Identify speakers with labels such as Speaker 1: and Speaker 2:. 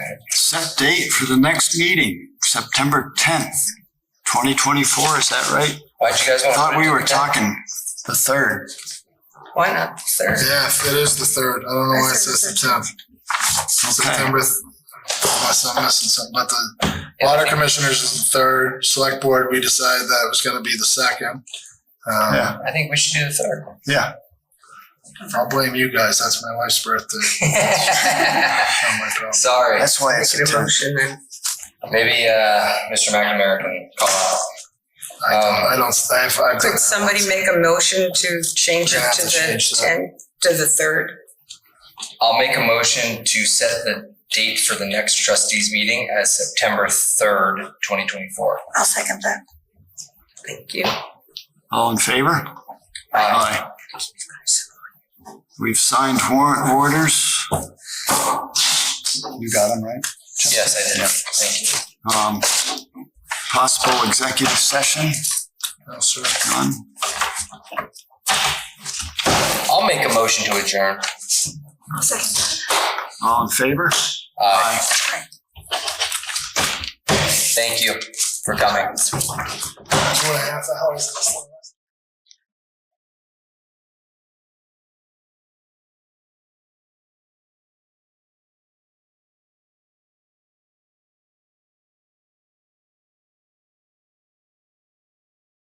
Speaker 1: set date for the next meeting, September tenth, twenty twenty-four, is that right?
Speaker 2: Why'd you guys
Speaker 1: I
Speaker 2: want?
Speaker 1: thought we were talking the third.
Speaker 2: Why not, sir?
Speaker 3: Yeah, it is the third. I don't know why it says the tenth.
Speaker 1: Okay,
Speaker 3: September. th- Unless I'm missing something, but the water commissioners is the third. Select board, we decided that it was gonna be the second.
Speaker 1: Yeah.
Speaker 3: Um,
Speaker 2: I think we should do the third.
Speaker 3: yeah. I'll blame you guys. That's my wife's birthday. Not my problem.
Speaker 2: Sorry.
Speaker 1: that's why it's a
Speaker 4: Make a
Speaker 1: ten.
Speaker 4: motion then.
Speaker 2: Maybe uh, Mr. McNamara can call out.
Speaker 3: I
Speaker 1: Oh.
Speaker 3: don't, I don't, I've, I've.
Speaker 4: Could somebody make a motion to change
Speaker 3: We're
Speaker 4: it
Speaker 3: gonna
Speaker 4: to
Speaker 3: have to change
Speaker 4: the
Speaker 3: that.
Speaker 4: tenth, to the third?
Speaker 2: I'll make a motion to set the date for the next trustees meeting as September third, twenty twenty-four.
Speaker 4: I'll second that. Thank you.
Speaker 1: All in favor?
Speaker 2: Uh,
Speaker 1: Aye. We've signed warrant orders. You got them, right?
Speaker 2: Yes, I did. Thank you.
Speaker 1: Um, possible executive session,
Speaker 3: No, sir.
Speaker 1: none.
Speaker 2: I'll make a motion to adjourn.
Speaker 4: I'll second that.
Speaker 1: All in favor?
Speaker 2: Aye. Thank you for coming.
Speaker 3: Two and a half hours.